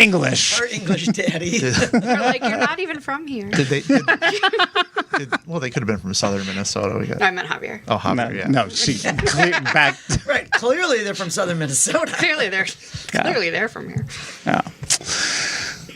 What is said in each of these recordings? English. Her English daddy. Or, like you're not even from here. Did they? Did, did- well, they could have been from southern Minnesota. We got. No, I meant Javier. Oh, Javier, No, yeah. no, she clear back. right. Clearly, they're from southern Minnesota. Clearly they're clearly they're from here. Oh.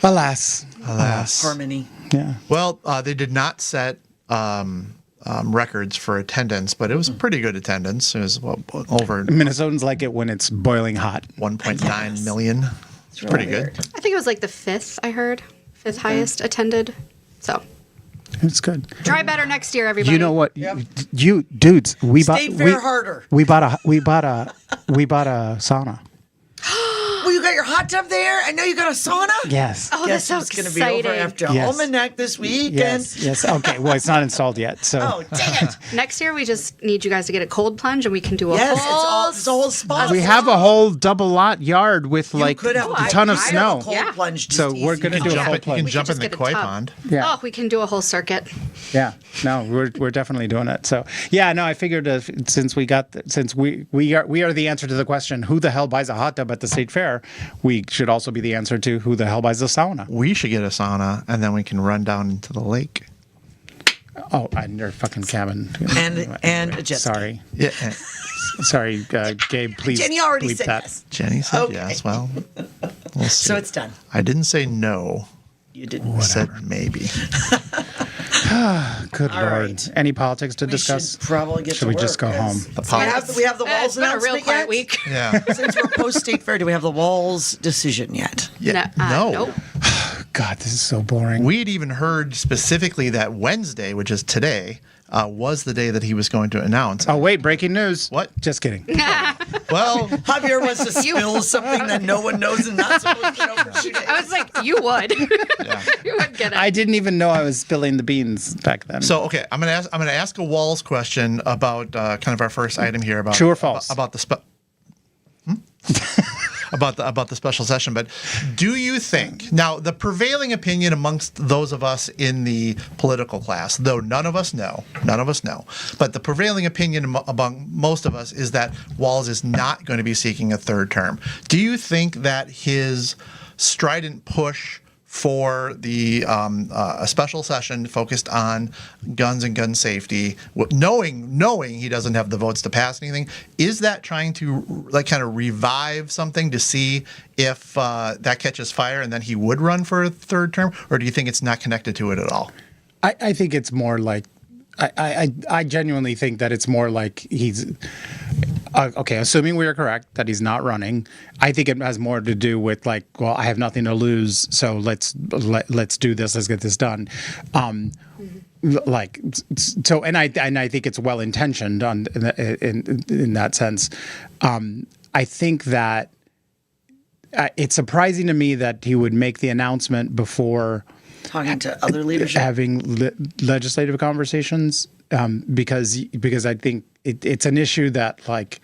Alas, Alas. Harmony. yeah. Well, uh, they did not set um, um, records for attendance, but it was pretty good attendance. It was well, over Minnesotans like it when it's boiling hot. 1.9 million. It's really pretty good. weird. I think it was like the fifth I heard. Fifth Mm-hmm. highest attended. So It's good. try better next year, everybody. You know what? Yeah. You dudes, we State bought fair we, harder. we bought a we bought a we bought a sauna. Well, you got your hot tub there. I know you got a sauna. Yes. Oh, that's Guess so it's going to be exciting. over after Yes. Almanac this weekend. Yes. Yes. Okay. Well, it's not installed yet. So Oh, dang it. Next year, we just need you guys to get a cold plunge, and we can do a Yes, it's whole. all, it's a whole spot. we have a whole double lot yard with like could have a ton of I have a snow. cold Yeah. plunge just So we're easy. gonna You do can a jump, whole it- you can plunge. jump just in the get a koi tub. pond. Yeah. Oh, we can do a whole circuit. Yeah, no, we're we're definitely doing it. So yeah, no, I figured uh, since we got since we we are we are the answer to the question who the hell buys a hot tub at the state fair, we should also be the answer to who the hell buys a sauna. We should get a sauna, and then we can run down into the lake. Oh, and your fucking cabin. And- and a jet ski. sorry, Yeah, eh, sorry, uh, Gabe, please. Jenny already bleep said that. yes. Jenny said Okay. yes. Well, we'll see. So it's done. I didn't say no. You didn't. I said maybe. Good All lord. right. Any politics to We discuss? should probably get Should to we just work, go guys. home? The We pop. have, we have the Uh, walls it's been a real announcement quiet yet? week. Yeah. Since we're post state fair, do we have the walls decision yet? yeah. No, uh, No. nope. God, this is so boring. We had even heard specifically that Wednesday, which is today, uh, was the day that he was going to announce. oh wait, breaking news. What? Just kidding. Well, Javier wants to You- spill something that no one knows and not supposed to know for two days. I was like, you would. yeah. you would get it. I didn't even know I was spilling the beans back then. So okay, I'm gonna ask. I'm gonna ask a Walls question about uh, kind of our first item here about True or false? about, about the spe- Hmm? about the about the special session. But do you think now the prevailing opinion amongst those of us in the political class, though none of us know, none of us know, but the prevailing opinion am- among most of us is that Walls is not going to be seeking a third term. Do you think that his strident push for the um, uh, a special session focused on guns and gun safety, w- knowing knowing he doesn't have the votes to pass anything. Is that trying to like kind of revive something to see if uh, that catches fire and then he would run for a third term, or do you think it's not connected to it at all? I, I think it's more like I, I, I- I genuinely think that it's more like he's uh, okay. Assuming we are correct that he's not running, I think it has more to do with like, well, I have nothing to lose, so let's let, let's do this, let's get this done. Um, l- like s- s- so, and I and I think it's well intentioned on in, in in that sense. Um, I think that uh, it's surprising to me that he would make the announcement before Talking to other leadership. having le- legislative conversations um, because because I think it, it's an issue that like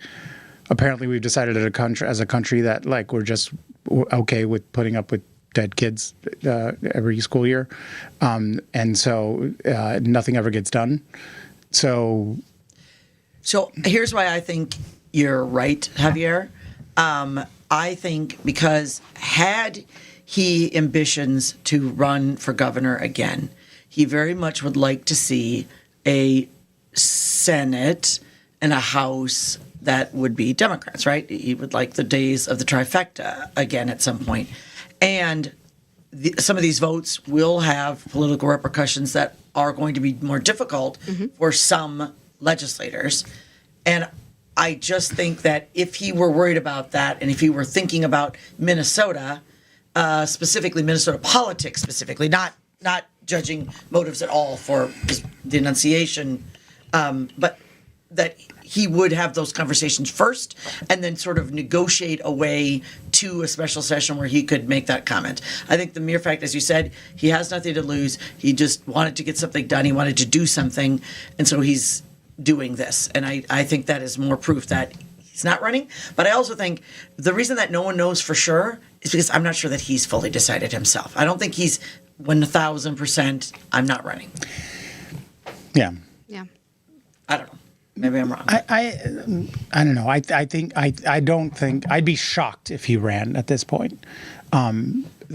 apparently we've decided as a country as a country that like we're just w- okay with putting up with dead kids uh, every school year, um, and so uh, nothing ever gets done. So So here's why I think you're right, Javier. Um, I think because had he ambitions to run for governor again, he very much would like to see a Senate and a House that would be Democrats, right? He would like the days of the trifecta again at some point. And the, some of these votes will have political repercussions that are going to be more difficult for some legislators. And I just think that if he were worried about that and if he were thinking about Minnesota, uh, specifically Minnesota politics, specifically, not not judging motives at all for just denunciation, um, but that he would have those conversations first and then sort of negotiate a way to a special session where he could make that comment. I think the mere fact, as you said, he has nothing to lose. He just wanted to get something done. He wanted to do something. And so he's doing this. And I, I think that is more proof that he's not running. But I also think the reason that no one knows for sure is because I'm not sure that he's fully decided himself. I don't think he's 1000% I'm not running. yeah. yeah. I don't know. Maybe I'm wrong. I, I, I don't know. I, I think I, I don't think I'd be shocked if he ran at this point. Um,